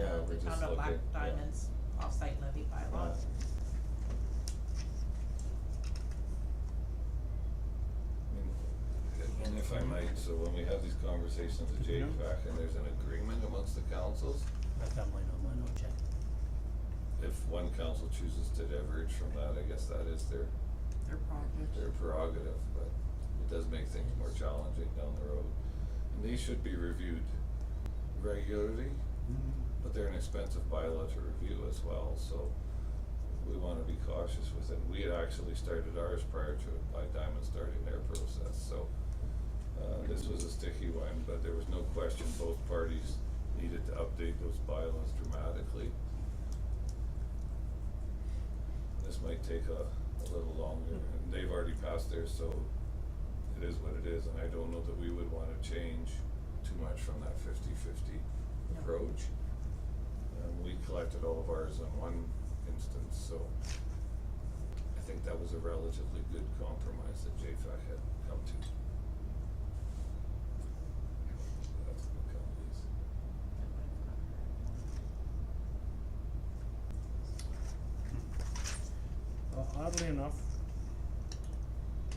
the Okay, black yeah. diamonds off-site levy bylaw. Right. And- And if I might, so when we have these conversations with JFAC and there's an agreement amongst the councils, I've got mine on mine, I'll check. if one council chooses to diverge from that, I guess that is their, Their their project. prerogative, but it does make things more challenging down the road. And these should be reviewed regularly, Mm-hmm. but they're an expensive bylaw to review as well, so we wanna be cautious with it. We had actually started ours prior to Black Diamond starting their process, so uh this was a sticky one, but there was no question both parties needed to update those bylaws dramatically. This might take a a little longer, and they've already passed theirs, so it is what it is, and I don't know that we would wanna change too much from that fifty-fifty No. approach. Um, we collected all of ours in one instance, so I think that was a relatively good compromise that JFAC had come to. That's the companies. Well, oddly enough,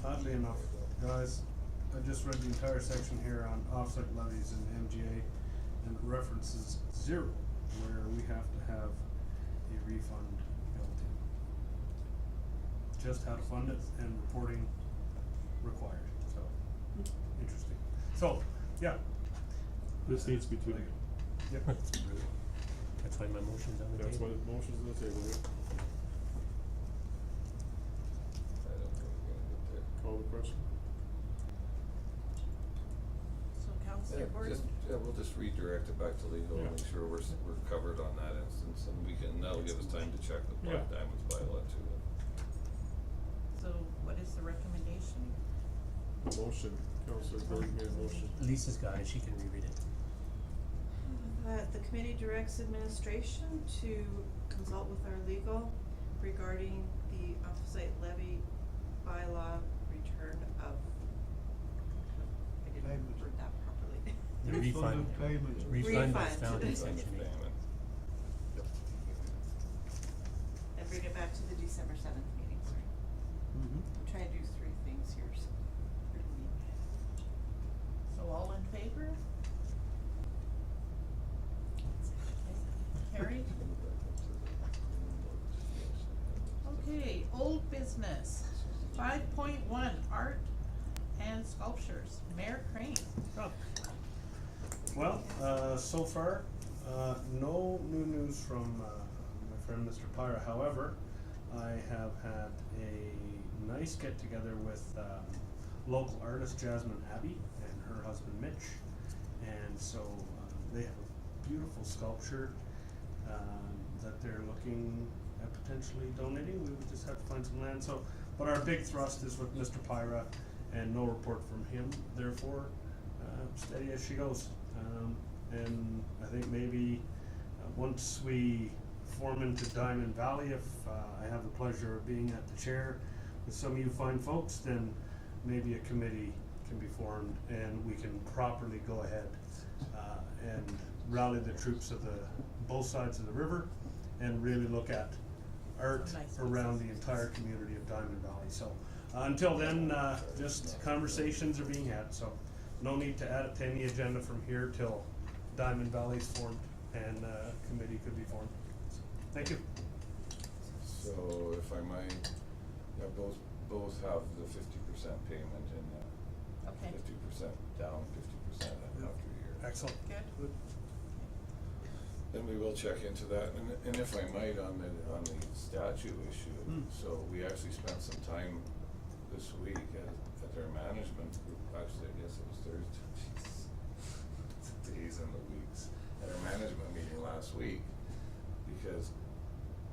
oddly enough, guys, I just read the entire section here on offset levies in MGA, and it references zero, where we have to have a refund built in. Just how to fund it and reporting required, so, interesting. So, yeah, This needs to be tweeted. yeah, That's why my motion's on the That's why table. the motion's on the table, we I don't think we're gonna get there. call the question. So Counselor Yeah, Gordon? just, yeah, we'll just redirect it back to legal and Yeah. make sure we're, s- we're covered on that instance, and we can, that'll give us time to check the Black Yeah. Diamonds bylaw too. So what is the recommendation? The motion, Counselor Gordon made a motion. Lisa's got it, she can reread it. That the committee directs administration to consult with our legal regarding the offsite levy bylaw return of. I didn't Payment. word that properly. The refund. of payment. Refund is Refund. down in Refund section eight. payment. And bring it back to the December seventh meeting, sorry. Mhm. Mm-hmm. I'm trying to do three things here, so. So all in favor? Carried? Okay, old business, five point one, art and sculptures, Mayor Crane. Oh. Well, uh, so far, uh, no new news from, uh, my friend Mr. Pyra, however, I have had a nice get-together with, um, local artist Jasmine Abbey and her husband Mitch. And so, uh, they have a beautiful sculpture, um, that they're looking at potentially donating, we would just have to find some land, so, but our big thrust is with Mr. Pyra and no report from him, therefore, uh, steady as she goes. Um, and I think maybe uh, once we form into Diamond Valley, if uh, I have the pleasure of being at the chair with some of you fine folks, then maybe a committee can be formed and we can properly go ahead uh, and rally the troops of the both sides of the river and really look at art Nice. around the entire community of Diamond Valley. So uh, until then, uh, just conversations are being had. So no need to add it to any agenda from here till Diamond Valley's formed and uh, committee could be formed. So, Thank you. So if I might, yeah, both, both have the fifty percent payment and Okay, fifty percent down, fifty percent after a year. Excellent. good. Then we will check into that, and, and if I might, on the, on the statue issue, Hmm. so we actually spent some time this week at, at their management group, actually, I guess it was Thursday, jeez. Days and the weeks, at our management meeting last week, because